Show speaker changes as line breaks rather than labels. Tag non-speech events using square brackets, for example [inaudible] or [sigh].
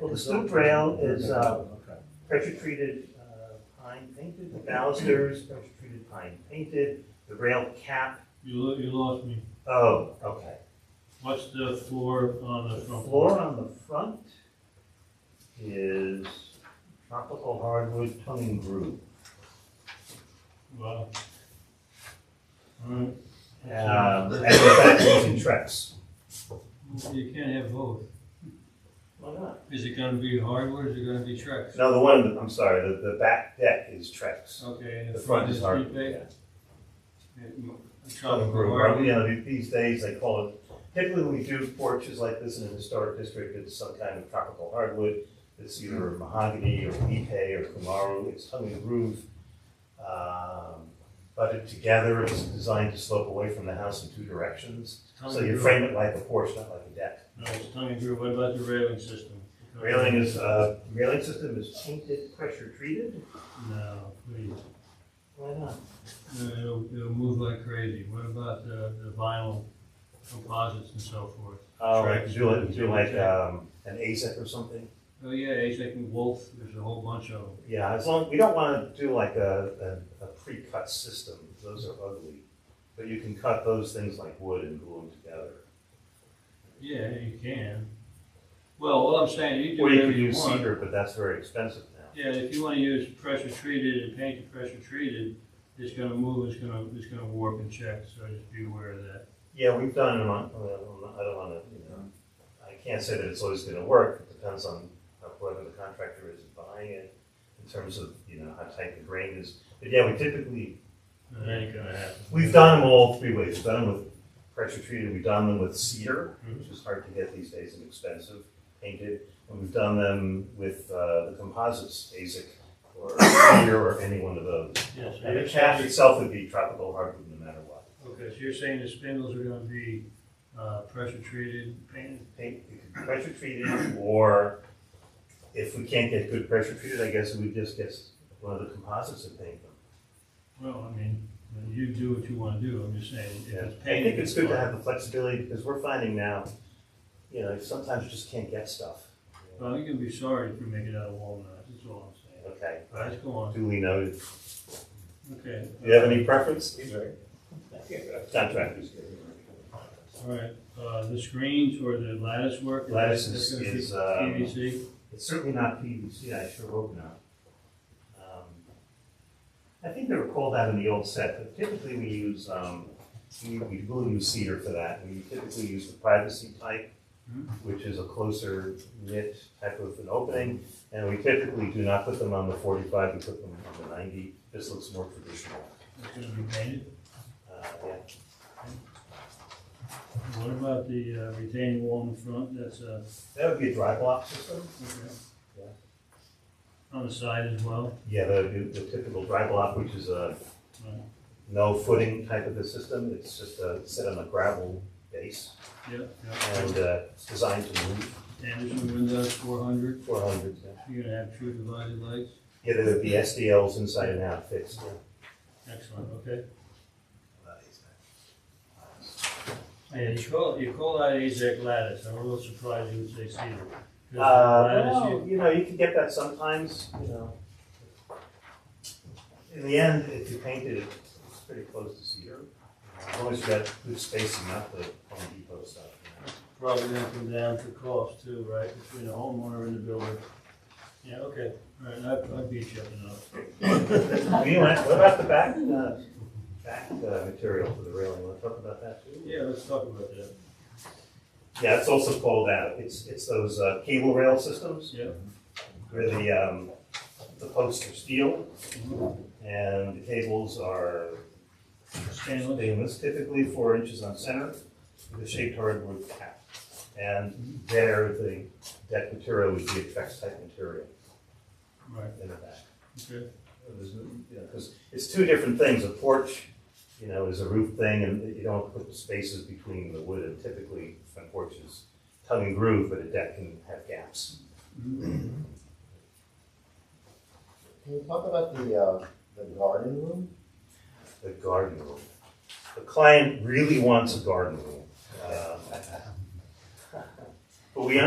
The stoop rail is uh, pressure-treated uh, pine painted, the balusters, pressure-treated pine painted, the rail cap,
You, lo- you lost me.
oh, okay.
What's the floor on
The
the front?
floor on the front is tropical hardwood tongue and groove.
Wow. Alright.
Um, And the back is in Trex.
You can't have both.
Why not?
Is it gonna be hardwood or is it gonna be Trex?
No, the one, I'm sorry, the, the back deck is Trex.
Okay. and
The front is hardwood.
prepaid?
yeah.
Yeah, a
Tongue
tropical
and groove,
hardwood.
you know, these days they call it, typically when we do porches like this in a historic district, it's some kind of tropical hardwood. It's either mahogany or ipe or kumaru, it's tongue and groove. Um, Butted together, it's designed to slope away from the house in two directions.
Tongue
So
and
you
groove.
frame it like a porch, not like a deck.
No, it's tongue and groove. What about the railing system?
Railing is, uh, railing system is painted, pressure treated.
No, please.
Why not?
No, It'll, it'll move like crazy. What about the, the vinyl composites and so forth?
Um,
Correct.
do like, do like, um, an ASIC or something.
Oh, yeah, Azek and Wolf, there's a whole bunch of them.
Yeah, as long, we don't wanna do like a, a, a pre-cut system, those are ugly. But you can cut those things like wood and glue them together.
Yeah, you can. Well, all I'm saying, you do
Or you
whatever
could
you
use
want.
cedar, but that's very expensive now.
Yeah, if you wanna use pressure treated and paint it pressure treated, it's gonna move, it's gonna, it's gonna warp and check, so just be aware of that.
Yeah, we've done it on, I don't wanna, you know, I can't say that it's always gonna work, it depends on how- whoever the contractor is buying it, in terms of, you know, how tight the grain is. But yeah, we typically
That ain't gonna happen.
We've done them all three ways. We've done them with pressure treated, we've done them with cedar,
Mhm.
which is hard to get these days and expensive, painted. And we've done them with uh, the composites, ASIC or cedar or any one of those.
Yes,
And the chaff itself would be tropical hardwood no matter what.
Okay, so you're saying the spindles are gonna be, uh, pressure treated, painted?
Paint, it could be pressure treated or if we can't get good pressure treated, I guess we just get one of the composites and paint them.
Well, I mean, you do what you wanna do, I'm just saying, if
Yeah,
it's
I
painted.
think it's good to
fine.
have the flexibility because we're finding now, you know, sometimes you just can't get stuff.
Well, you can be sorry if you make it out of walnuts, that's all I'm saying.
Okay.
All right, let's go on,
Duly noted.
okay.
Do you have any preference? Contractors.
All right, uh, the screens or the lattice work? that-
Lattice
that's
is-
gonna be
is, um,
PVC,
It's certainly not PVC, I sure hope not. Um, I think they were called out in the old set, but typically we use, um, we, we will use cedar for that. We typically use the privacy type,
Mhm.
which is a closer knit type of an opening. And we typically do not put them on the forty-five, we put them on the ninety. This looks more traditional.
that's gonna be painted.
Uh, yeah.
What about the uh, retaining wall in front, that's, uh,
That would be a dry block system.
okay.
Yeah.
On the side as well?
Yeah, the, the typical dry block, which is a no footing type of a system, it's just a, set on a gravel base,
Yeah,
and,
yeah.
uh, it's designed to move
Anderson windows, four hundred,
four hundred.
you're gonna have true divided lights,
Yeah, there would be SDLs inside and out fixed.
excellent, okay. Yeah, you call, you call out Azek lattice, I'm a little surprised you would say cedar.
Uh,
'Cause the lattice, you-
well, you know, you can get that sometimes, you know. In the end, if you paint it, it's pretty close to cedar, as long as you got good spacing, not the Home Depot stuff. you know.
Probably gonna come down to cost too, right, between the homeowner and the builder. Yeah, okay, all right, I, I beat you up enough.
Anyway, what about the back, uh, back uh, material for the railing, wanna talk about that too?
Yeah, let's talk about that.
Yeah, it's also called out, it's, it's those uh, cable rail systems
Yeah.
where the, um, the posts are steel
Mhm.
and the cables are
Stainless,
stainless, typically four inches on center with a shaped hardwood cap. And there, the deck material would be a Trex type material
right,
in the back.
okay,
Oh, Because it's two different things, a porch, you know, is a roof thing, and you don't put the spaces between the wood, and typically, front porch is tongue and groove, but a deck can have gaps.
Mm-hmm.
Can you talk about the, uh, the garden room?
The garden room. The client really wants a garden room. Uh, Um, [laughs] But we